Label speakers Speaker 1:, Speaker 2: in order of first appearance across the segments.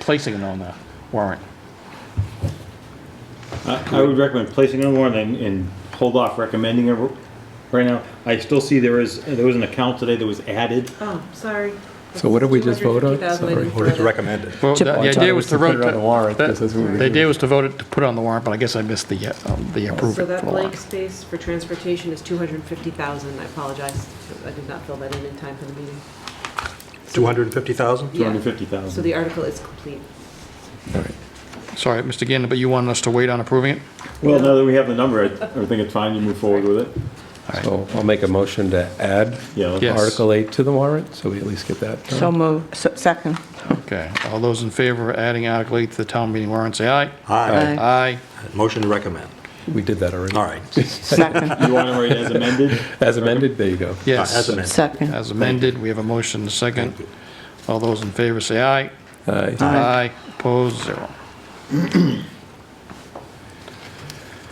Speaker 1: placing it on the warrant.
Speaker 2: I I would recommend placing it on warrant and, and hold off recommending it right now. I still see there is, there was an account today that was added.
Speaker 3: Oh, sorry.
Speaker 4: So what did we just vote on? Sorry.
Speaker 5: Or to recommend it.
Speaker 1: Well, the the
Speaker 4: I thought
Speaker 1: idea
Speaker 4: it
Speaker 1: was to
Speaker 4: put
Speaker 1: vote,
Speaker 4: it on
Speaker 1: to-
Speaker 4: the warrant, 'cause that's what we were
Speaker 1: the idea
Speaker 4: doing.
Speaker 1: was to vote it, to put it on the warrant, but I guess I missed the, uh, um, the approve
Speaker 3: So
Speaker 1: it
Speaker 3: that
Speaker 1: for the warrant.
Speaker 3: blank space for transportation is 250,000. I apologize. I did not fill that in in time for the meeting.
Speaker 5: 250,000?
Speaker 3: Yeah.
Speaker 2: 250,000.
Speaker 3: So the article is complete.
Speaker 4: All right.
Speaker 1: Sorry, Mr. Gannon, but you wanted us to wait on approving it?
Speaker 2: Well, now that we have the number, I I think it's fine to move forward with it.
Speaker 4: So I'll make a motion to add
Speaker 2: Yeah. let's-
Speaker 1: Yes.
Speaker 4: Article 8 to the warrant, so we at least get that
Speaker 6: So
Speaker 4: done.
Speaker 6: move, so- second.
Speaker 1: Okay, all those in favor of adding Article 8 to the town meeting warrant, say aye.
Speaker 5: Aye.
Speaker 6: Aye.
Speaker 1: Aye.
Speaker 5: Motion to recommend.
Speaker 4: We did that already.
Speaker 5: All right.
Speaker 6: Second,
Speaker 2: You want to write as amended?
Speaker 4: As amended, there you go.
Speaker 1: Yes.
Speaker 5: Uh, As amended.
Speaker 6: second.
Speaker 1: As amended, we have a motion, a second.
Speaker 5: Thank you.
Speaker 1: All those in favor, say aye.
Speaker 4: Aye.
Speaker 1: Aye, opposed, zero.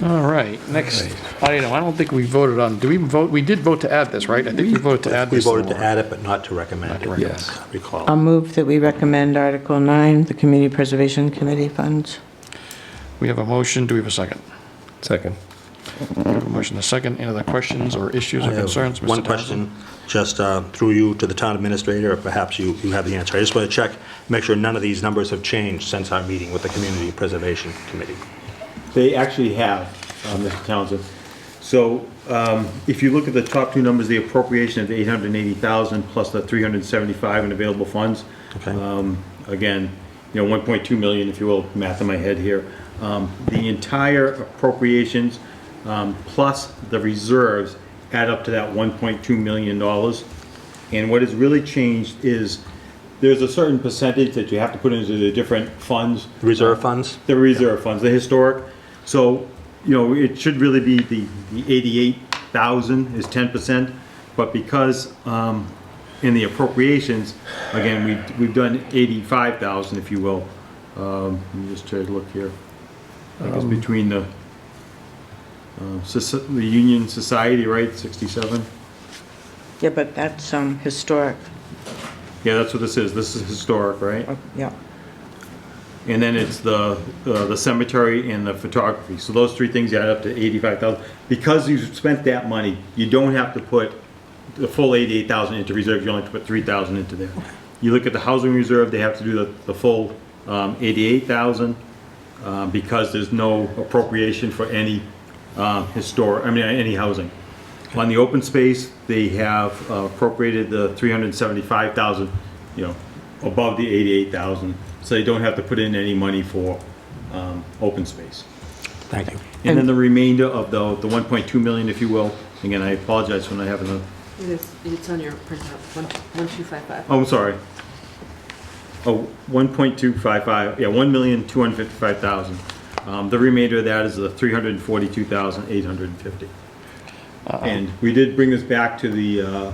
Speaker 1: All right, next item, I don't think we voted on, do we vote, we did vote to add this, right? I think we voted to add
Speaker 5: We
Speaker 1: this. to the
Speaker 5: voted to
Speaker 1: warrant.
Speaker 5: add it, but not to recommend it.
Speaker 4: Yes.
Speaker 6: I'll
Speaker 5: Recall.
Speaker 6: move that we recommend Article 9, the Community Preservation Committee funds.
Speaker 1: We have a motion, do we have a second?
Speaker 4: Second.
Speaker 1: We have a motion, a second, any other questions or issues or
Speaker 5: I have
Speaker 1: concerns? Mr.
Speaker 5: Uh, One
Speaker 1: Townsend?
Speaker 5: question, just uh, through you to the town administrator, or perhaps you, you have the answer. I just want to check, make sure none of these numbers have changed since our meeting with the Community Preservation Committee.
Speaker 2: They actually have, uh, Mr. Townsend. So um, if you look at the top two numbers, the appropriation of the 880,000 plus the 375 in available funds.
Speaker 5: Okay.
Speaker 2: um, Again, you know, 1.2 million, if you will, math in my head here. Um, The entire appropriations um, plus the reserves add up to that 1.2 million dollars. And what has really changed is there's a certain percentage that you have to put into the different funds.
Speaker 5: Reserve funds?
Speaker 2: The reserve funds, the historic, so, you know, it should really be the, the eighty-eight thousand is ten percent, but because, um, in the appropriations, again, we, we've done eighty-five thousand, if you will. Um, let me just try to look here. I guess between the, uh, soci- the Union Society, right, sixty-seven?
Speaker 6: Yeah, but that's um, historic.
Speaker 2: Yeah, that's what this is, this is historic, right?
Speaker 6: Oh, Yeah.
Speaker 2: And then it's the, uh, the cemetery and the photography. So those three things add up to eighty-five thousand. Because you've spent that money, you don't have to put the full eighty-eight thousand into reserve, you only have to put three thousand into there. You look at the housing reserve, they have to do the, the full, um, eighty-eight thousand, uh, because there's no appropriation for any, uh, historic, I mean, any housing. On the open space, they have uh, appropriated the three hundred and seventy-five thousand, you know, above the eighty-eight thousand, so they don't have to put in any money for, um, open space.
Speaker 5: Thank you.
Speaker 2: And then the remainder of the, the one point two million, if you will, again, I apologize for not having the,
Speaker 3: It is, it's on your printout, one- 1255.
Speaker 2: oh, I'm sorry. Oh, one point two five five, yeah, one million, two hundred and fifty-five thousand. Um, the remainder of that is the three hundred and forty-two thousand, eight hundred and fifty. And we did bring this back to the uh, uh,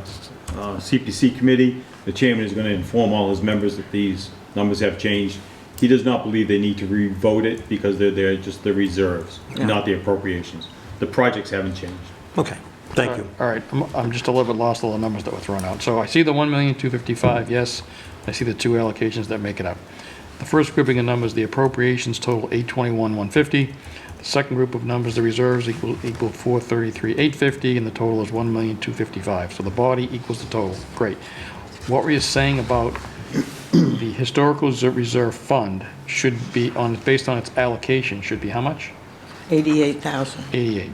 Speaker 2: CPC committee. The chairman is going to inform all his members that these numbers have changed. He does not believe they need to re-vote it because they're, they're just the reserves, not the appropriations. The projects haven't changed.
Speaker 5: Okay, thank you.
Speaker 1: All right, I'm- I'm just a little bit lost, all the numbers that were thrown out. So I see the 1,255, yes. I see the two allocations that make it up. The first grouping of numbers, the appropriations total 821,150. The second group of numbers, the reserves equal equal 433,850, and the total is 1,255. So the body equals the total. Great. What were you saying about the historical reserve- reserve fund should be on, based on its allocation, should be how much?
Speaker 6: 88,000.
Speaker 1: 88.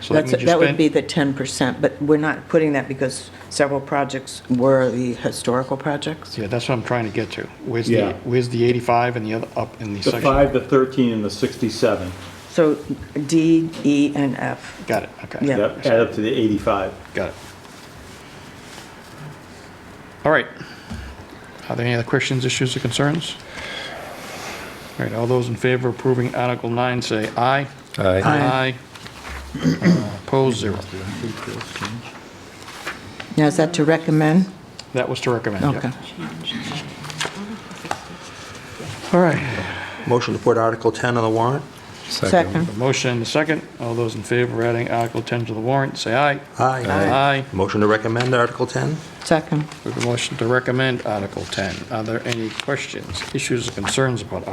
Speaker 1: So
Speaker 6: That's,
Speaker 1: means you
Speaker 6: that would
Speaker 1: spent-
Speaker 6: be the 10%, but we're not putting that because several projects were the historical projects.
Speaker 1: Yeah, that's what I'm trying to get to. Where's the,
Speaker 2: Yeah.
Speaker 1: where's the 85 and the other up in the
Speaker 2: The
Speaker 1: section?
Speaker 2: five, the 13, and the 67,
Speaker 6: So D, E, and F.
Speaker 1: Got it, okay.
Speaker 6: Yeah.
Speaker 2: that add up to the 85.
Speaker 1: Got it. All right. Are there any other questions, issues, or concerns? All right, all those in favor of approving Article 9, say aye. Aye.
Speaker 4: Aye.
Speaker 1: Uh, Opposed, zero.
Speaker 6: Now, is that to recommend?
Speaker 1: That was to recommend, yeah.
Speaker 6: Okay.
Speaker 1: All right,
Speaker 5: Motion to put Article 10 on the warrant?
Speaker 4: Second.
Speaker 1: The motion, the second. All those in favor of adding Article 10 to the warrant, say aye. Aye.
Speaker 5: Motion to recommend Article 10?
Speaker 6: Second.
Speaker 1: We have a motion to recommend Article 10. Are there any questions, issues, or concerns about